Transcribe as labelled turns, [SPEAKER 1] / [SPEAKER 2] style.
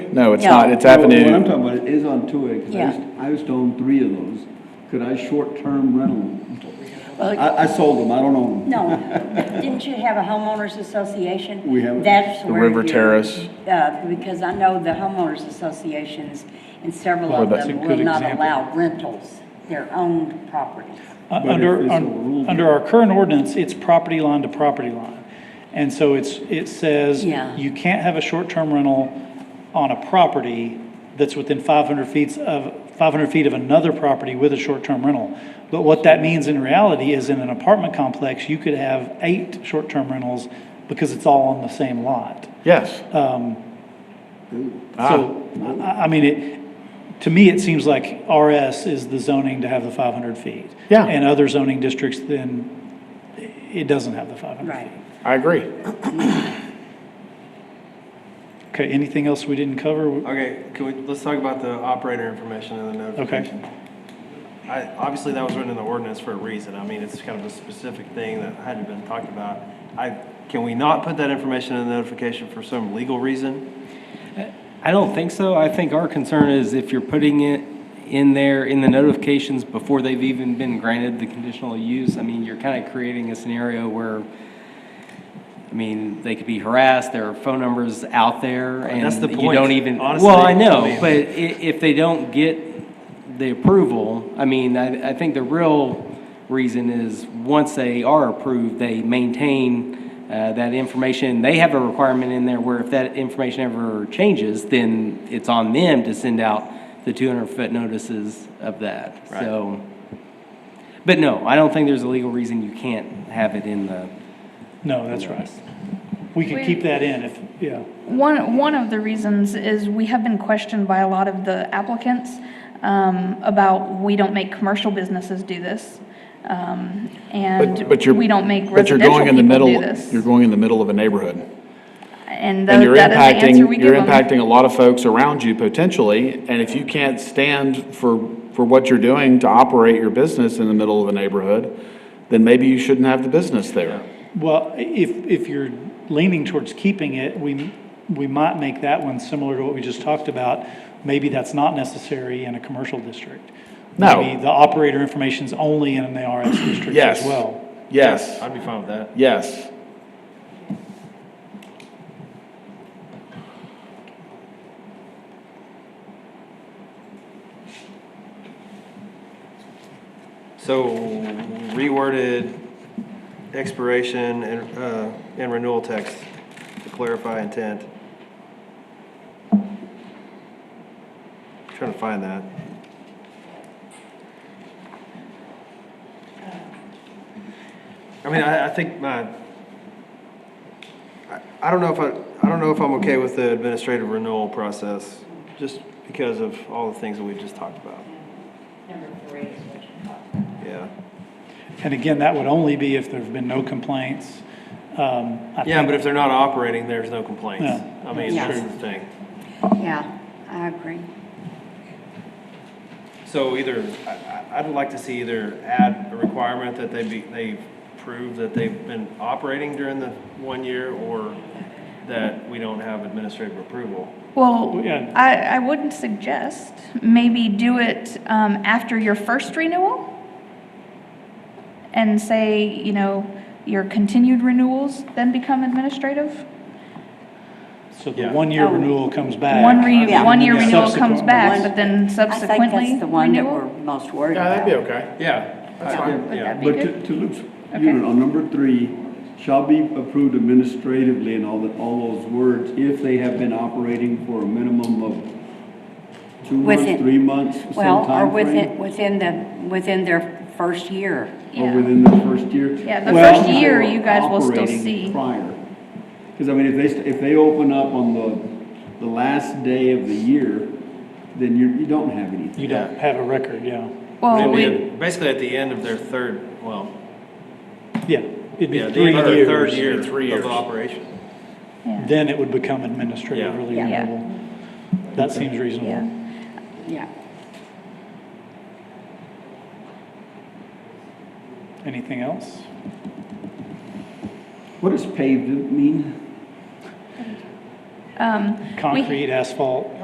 [SPEAKER 1] No, it's
[SPEAKER 2] No.
[SPEAKER 1] not, it's
[SPEAKER 3] What I'm
[SPEAKER 1] Avenue,
[SPEAKER 3] talking about is on two acres. I
[SPEAKER 2] Yeah.
[SPEAKER 3] used, I used to own three of those. Could I short-term rental?
[SPEAKER 2] Well,
[SPEAKER 3] I, I sold them, I don't own them.
[SPEAKER 2] No, didn't you have a homeowners association?
[SPEAKER 3] We have-
[SPEAKER 2] That's
[SPEAKER 1] The
[SPEAKER 2] where.
[SPEAKER 1] River
[SPEAKER 2] you-
[SPEAKER 1] Terrace.
[SPEAKER 2] Uh, because I know the homeowners associations and several
[SPEAKER 1] Well,
[SPEAKER 2] of
[SPEAKER 1] that's a
[SPEAKER 2] them will
[SPEAKER 4] good
[SPEAKER 2] not
[SPEAKER 4] example.
[SPEAKER 2] allow rentals, their own properties.
[SPEAKER 3] But
[SPEAKER 4] Uh,
[SPEAKER 3] if
[SPEAKER 4] Under,
[SPEAKER 3] it's a
[SPEAKER 4] un-
[SPEAKER 3] rule-
[SPEAKER 4] under our current ordinance, it's property line to property line. And so it's, it says
[SPEAKER 2] Yeah.
[SPEAKER 4] you can't have a short-term rental on a property that's within 500 feet of, 500 feet of another property with a short-term rental. But what that means in reality is in an apartment complex, you could have eight short-term rentals because it's all on the same lot.
[SPEAKER 1] yes. Ah.
[SPEAKER 4] So, I, I mean, it, to me, it seems like RS is the zoning to have the five hundred feet.
[SPEAKER 1] Yeah.
[SPEAKER 4] And other zoning districts, then it doesn't have the five hundred.
[SPEAKER 2] Right.
[SPEAKER 1] I agree.
[SPEAKER 4] Okay, anything else we didn't cover?
[SPEAKER 5] Okay, can we, let's talk about the operator information and the notification. I, obviously, that was written in the ordinance for a reason. I mean, it's kind of a specific thing that hadn't been talked about. I, can we not put that information in the notification for some legal reason?
[SPEAKER 6] I don't think so. I think our concern is if you're putting it in there in the notifications before they've even been granted the conditional use, I mean, you're kind of creating a scenario where, I mean, they could be harassed, there are phone numbers out there, and
[SPEAKER 5] That's the
[SPEAKER 6] you
[SPEAKER 5] point,
[SPEAKER 6] don't even.
[SPEAKER 5] honestly.
[SPEAKER 6] Well, I
[SPEAKER 5] I
[SPEAKER 6] know,
[SPEAKER 5] mean-
[SPEAKER 6] but i- if they don't get the approval, I mean, I, I think the real reason is, once they are approved, they maintain uh, that information. They have a requirement in there where if that information ever changes, then it's on them to send out the 200-foot notices of that,
[SPEAKER 5] Right.
[SPEAKER 6] so. But no, I don't think there's a legal reason you can't have it in the.
[SPEAKER 4] No, that's right. We could
[SPEAKER 7] We-
[SPEAKER 4] keep that in if, yeah.
[SPEAKER 7] One, one of the reasons is we have been questioned by a lot of the applicants um, about, we don't make commercial businesses do this, um,
[SPEAKER 1] But, but you're.
[SPEAKER 7] and we don't make
[SPEAKER 1] but you're
[SPEAKER 7] residential
[SPEAKER 1] going in the
[SPEAKER 7] people do
[SPEAKER 1] middle-
[SPEAKER 7] this.
[SPEAKER 1] You're going in the middle of a neighborhood.
[SPEAKER 7] And
[SPEAKER 1] And
[SPEAKER 7] tho-
[SPEAKER 1] you're
[SPEAKER 7] that is the answer we
[SPEAKER 1] impacting,
[SPEAKER 7] give
[SPEAKER 1] you're
[SPEAKER 7] them.
[SPEAKER 1] impacting a lot of folks around you potentially, and if you can't stand for, for what you're doing to operate your business in the middle of a neighborhood, then maybe you shouldn't have the business there.
[SPEAKER 4] Well, if, if you're leaning towards keeping it, we, we might make that one similar to what we just talked about. Maybe that's not necessary in a commercial district.
[SPEAKER 1] No.
[SPEAKER 4] Maybe the operator information's only in the RS district as
[SPEAKER 1] Yes.
[SPEAKER 4] well.
[SPEAKER 1] Yes,
[SPEAKER 5] I'd be fine with that.
[SPEAKER 1] yes.
[SPEAKER 5] So reworded expiration and, uh, and renewal text to clarify intent. Trying to find that. I mean, I, I think my, I, I don't know if I, I don't know if I'm okay with the administrative renewal process, just because of all the things that we just talked about. Yeah.
[SPEAKER 4] And again, that would only be if there've been no complaints. Um, I
[SPEAKER 5] Yeah,
[SPEAKER 4] think-
[SPEAKER 5] but if they're not operating, there's no complaints.
[SPEAKER 4] Yeah.
[SPEAKER 5] I mean,
[SPEAKER 2] Yeah.
[SPEAKER 5] that's the thing.
[SPEAKER 2] Yeah, I agree.
[SPEAKER 5] So either, I, I- I'd like to see either add a requirement that they be, they prove that they've been operating during the one year or that we don't have administrative approval.
[SPEAKER 7] Well,
[SPEAKER 4] Yeah.
[SPEAKER 7] I, I would suggest maybe do it um, after your first renewal and say, you know, your continued renewals then become administrative.
[SPEAKER 4] So the
[SPEAKER 5] Yeah.
[SPEAKER 4] one-year
[SPEAKER 2] Oh.
[SPEAKER 4] renewal comes back.
[SPEAKER 7] One re,
[SPEAKER 2] Yeah.
[SPEAKER 7] one year
[SPEAKER 4] Yeah.
[SPEAKER 7] renewal comes
[SPEAKER 4] Subsequent
[SPEAKER 7] back,
[SPEAKER 2] one.
[SPEAKER 7] but then
[SPEAKER 2] I think
[SPEAKER 7] subsequently
[SPEAKER 2] that's the one that we're
[SPEAKER 7] renewal?
[SPEAKER 2] most worried
[SPEAKER 1] Yeah,
[SPEAKER 2] about.
[SPEAKER 1] that'd be okay.
[SPEAKER 5] Yeah, that's
[SPEAKER 7] Would
[SPEAKER 5] fine,
[SPEAKER 7] that
[SPEAKER 5] yeah.
[SPEAKER 7] be
[SPEAKER 3] But
[SPEAKER 7] good?
[SPEAKER 3] to, to Luke's
[SPEAKER 7] Okay.
[SPEAKER 3] unit on number three, shall be approved administratively and all the, all those words if they have been operating for a minimum of two
[SPEAKER 2] Within-
[SPEAKER 3] months, three months, some
[SPEAKER 2] Well, or
[SPEAKER 3] timeframe,
[SPEAKER 2] within, within the, within their first year.
[SPEAKER 3] Or
[SPEAKER 7] Yeah.
[SPEAKER 3] within the first year.
[SPEAKER 7] Yeah, the
[SPEAKER 4] Well-
[SPEAKER 7] first year, you guys will still
[SPEAKER 3] Operating
[SPEAKER 7] see.
[SPEAKER 3] Prior. Because I mean, if they, st- if they open up on the, the last day of the year, then you, you don't have anything.
[SPEAKER 4] You don't have a record, yeah.
[SPEAKER 7] Well,
[SPEAKER 5] Maybe
[SPEAKER 7] we,
[SPEAKER 5] at- Basically at the end of their third, well,
[SPEAKER 4] Yeah, it'd
[SPEAKER 5] yeah,
[SPEAKER 4] be
[SPEAKER 5] the end
[SPEAKER 4] three
[SPEAKER 5] of their third
[SPEAKER 4] years.
[SPEAKER 5] year
[SPEAKER 1] three years.
[SPEAKER 5] of operation.
[SPEAKER 7] yeah.
[SPEAKER 4] Then it would become administratively
[SPEAKER 2] Yeah.
[SPEAKER 7] Yeah.
[SPEAKER 4] renewable. That seems reasonable.
[SPEAKER 7] Yeah.
[SPEAKER 2] Yeah.
[SPEAKER 4] Anything else?
[SPEAKER 3] What does paved mean?
[SPEAKER 7] Um, we-
[SPEAKER 4] Concrete, asphalt?